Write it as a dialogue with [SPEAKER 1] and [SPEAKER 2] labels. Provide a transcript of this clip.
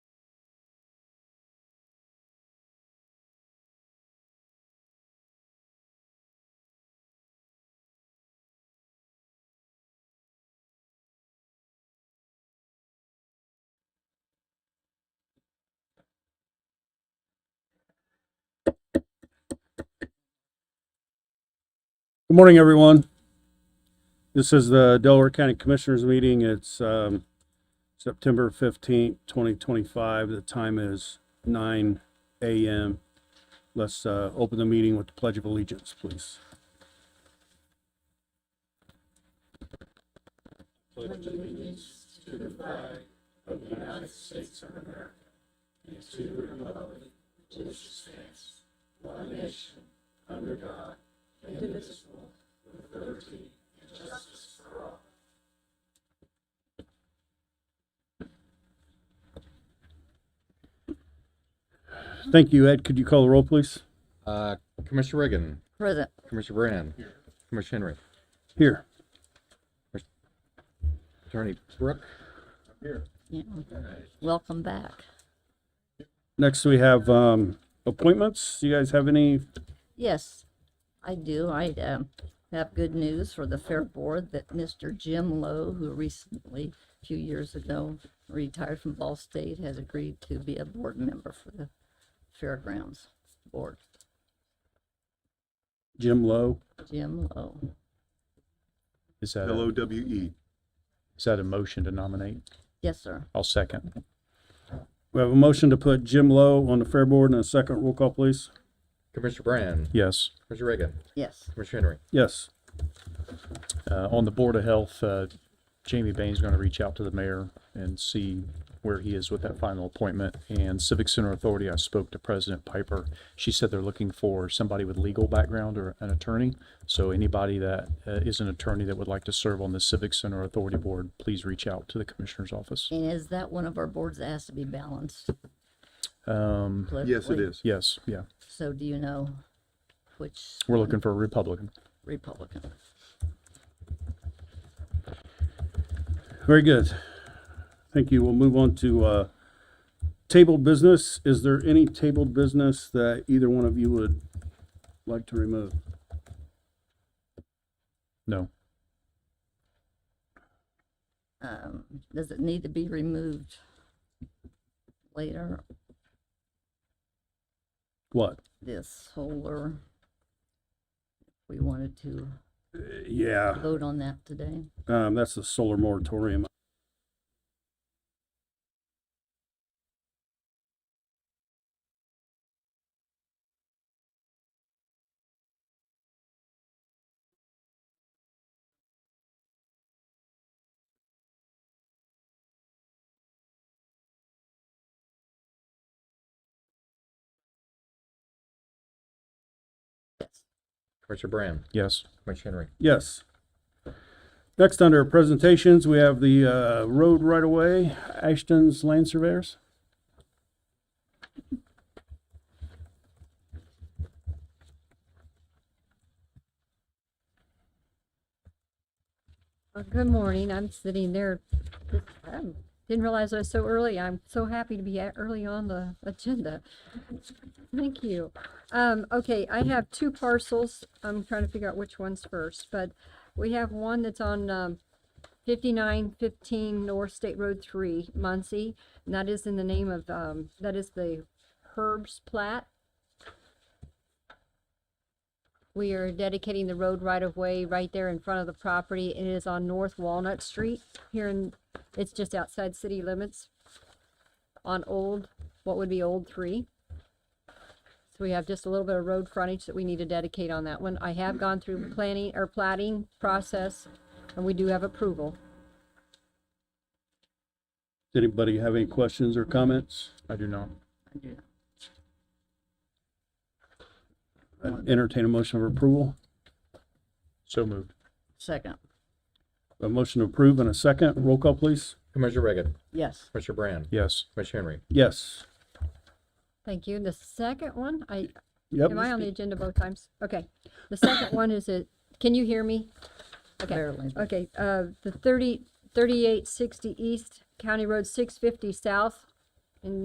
[SPEAKER 1] Good morning, everyone. This is the Delaware County Commissioners Meeting. It's um, September 15th, 2025. The time is 9 a.m. Let's uh, open the meeting with the Pledge of Allegiance, please. Thank you, Ed. Could you call the roll, please?
[SPEAKER 2] Uh, Commissioner Reagan,
[SPEAKER 3] Present.
[SPEAKER 2] Commissioner Brand, Commissioner Henry,
[SPEAKER 1] Here.
[SPEAKER 2] Attorney Brooke,
[SPEAKER 3] Yeah. Welcome back.
[SPEAKER 1] Next, we have um, appointments. You guys have any?
[SPEAKER 3] Yes, I do. I um, have good news for the Fair Board that Mr. Jim Lowe, who recently, a few years ago, retired from Ball State, has agreed to be a board member for the Fairgrounds Board.
[SPEAKER 1] Jim Lowe?
[SPEAKER 3] Jim Lowe.
[SPEAKER 4] Is that, a-
[SPEAKER 5] L-O-W-E.
[SPEAKER 4] is that a motion to nominate?
[SPEAKER 3] Yes, sir.
[SPEAKER 4] I'll second.
[SPEAKER 1] We have a motion to put Jim Lowe on the Fair Board and a second roll call, please.
[SPEAKER 2] Commissioner Brand,
[SPEAKER 4] Yes.
[SPEAKER 2] Commissioner Reagan,
[SPEAKER 3] Yes.
[SPEAKER 2] Commissioner Henry.
[SPEAKER 1] Yes.
[SPEAKER 4] Uh, on the Board of Health, uh, Jamie Bain's going to reach out to the mayor and see where he is with that final appointment. And Civic Center Authority, I spoke to President Piper. She said they're looking for somebody with legal background or an attorney. So anybody that uh, is an attorney that would like to serve on the Civic Center Authority Board, please reach out to the Commissioner's Office.
[SPEAKER 3] And is that one of our boards that has to be balanced
[SPEAKER 4] Um,
[SPEAKER 5] Yes, it
[SPEAKER 3] politically?
[SPEAKER 5] is.
[SPEAKER 4] yes, yeah.
[SPEAKER 3] So do you know which
[SPEAKER 4] We're looking for a Republican.
[SPEAKER 3] Republican?
[SPEAKER 1] Very good. Thank you. We'll move on to uh, tabled business. Is there any tabled business that either one of you would like to remove?
[SPEAKER 4] No.
[SPEAKER 3] um, does it need to be removed later?
[SPEAKER 1] What?
[SPEAKER 3] This solar, we wanted to
[SPEAKER 1] Yeah,
[SPEAKER 3] vote on that today.
[SPEAKER 1] um, that's the solar moratorium.
[SPEAKER 2] Commissioner Brand,
[SPEAKER 4] Yes.
[SPEAKER 2] Commissioner Henry.
[SPEAKER 1] Yes. Next, under presentations, we have the uh, road right away, Ashton's Land Surveyors.
[SPEAKER 6] Well, Good morning. I'm sitting there. just, um, Didn't realize I was so early. I'm so happy to be at- early on the agenda. Thank you. Um, okay, I have two parcels. I'm trying to figure out which one's first, but we have one that's on, um, fifty-nine fifteen North State Road three, Muncie. And that is in the name of, um, that is the Herb's Plat. We are dedicating the road right of way right there in front of the property. It is on North Walnut Street here in, it's just outside city limits on old, what would be old three. So we have just a little bit of road frontage that we need to dedicate on that one. I have gone through planning or plating process and we do have approval.
[SPEAKER 1] Does anybody have any questions or comments?
[SPEAKER 4] I do not.
[SPEAKER 3] I do.
[SPEAKER 1] I'd Entertain a motion of approval.
[SPEAKER 4] So moved.
[SPEAKER 3] Second,
[SPEAKER 1] A motion to approve and a second. Roll call, please.
[SPEAKER 2] Commissioner Reagan,
[SPEAKER 3] yes.
[SPEAKER 2] Commissioner Brand,
[SPEAKER 4] Yes.
[SPEAKER 2] Commissioner Henry.
[SPEAKER 1] Yes.
[SPEAKER 6] Thank you. The second one, I,
[SPEAKER 1] Yep.
[SPEAKER 6] am I on the agenda both times? Okay. The second one is a, can you hear me? Okay.
[SPEAKER 3] Barely.
[SPEAKER 6] Okay, uh, the thirty, thirty-eight sixty east, County Road six fifty south,